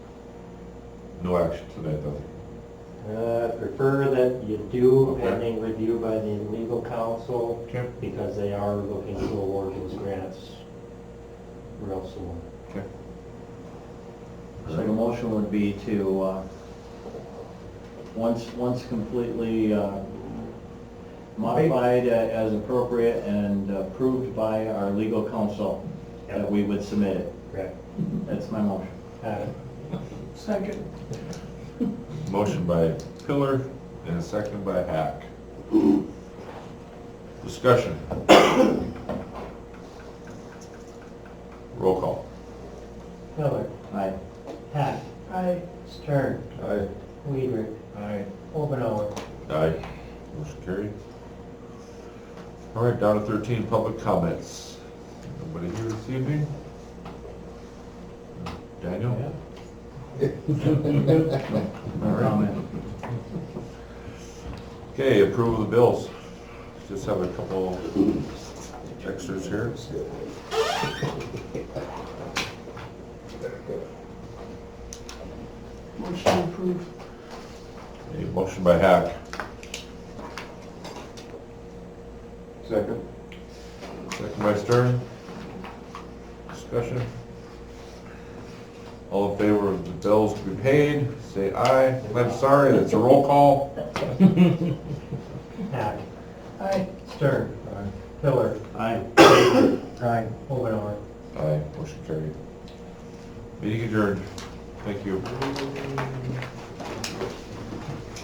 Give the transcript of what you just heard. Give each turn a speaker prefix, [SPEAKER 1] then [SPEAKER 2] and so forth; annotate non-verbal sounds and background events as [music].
[SPEAKER 1] No action tonight, though.
[SPEAKER 2] Uh, prefer that you do
[SPEAKER 1] Okay.
[SPEAKER 2] pending review by the legal counsel
[SPEAKER 1] Okay.
[SPEAKER 2] because they are looking to award those grants real soon.
[SPEAKER 1] Okay.
[SPEAKER 3] So the motion would be to, uh, once, once completely uh, modified uh, as appropriate and approved by our legal counsel, that we would submit it.
[SPEAKER 2] Correct.
[SPEAKER 3] That's my motion.
[SPEAKER 2] Uh,
[SPEAKER 3] Second.
[SPEAKER 1] Motion by Pillar and a second by Hack. Discussion. Roll call.
[SPEAKER 2] Miller,
[SPEAKER 3] Aye.
[SPEAKER 2] Hack. Aye. Stern,
[SPEAKER 1] Aye.
[SPEAKER 2] Weidrich,
[SPEAKER 3] Aye. [laughs]
[SPEAKER 2] Omenauer.
[SPEAKER 1] Aye. Motion carried. All right, down to thirteen, public comments. Nobody here this evening? Daniel?
[SPEAKER 3] No comment.
[SPEAKER 1] Okay, approval of the bills. Just have a couple extras here.
[SPEAKER 4] Motion approved.
[SPEAKER 1] A motion by Hack.
[SPEAKER 3] Second.
[SPEAKER 1] Second by Stern. Discussion. All in favor of the bills to be paid, say aye. I'm sorry, that's a roll call.
[SPEAKER 2] Hack. Aye. Stern. Pillar.
[SPEAKER 3] Aye.
[SPEAKER 2] Aye. Omenauer.
[SPEAKER 1] Aye, motion carried. Meeting adjourned. Thank you.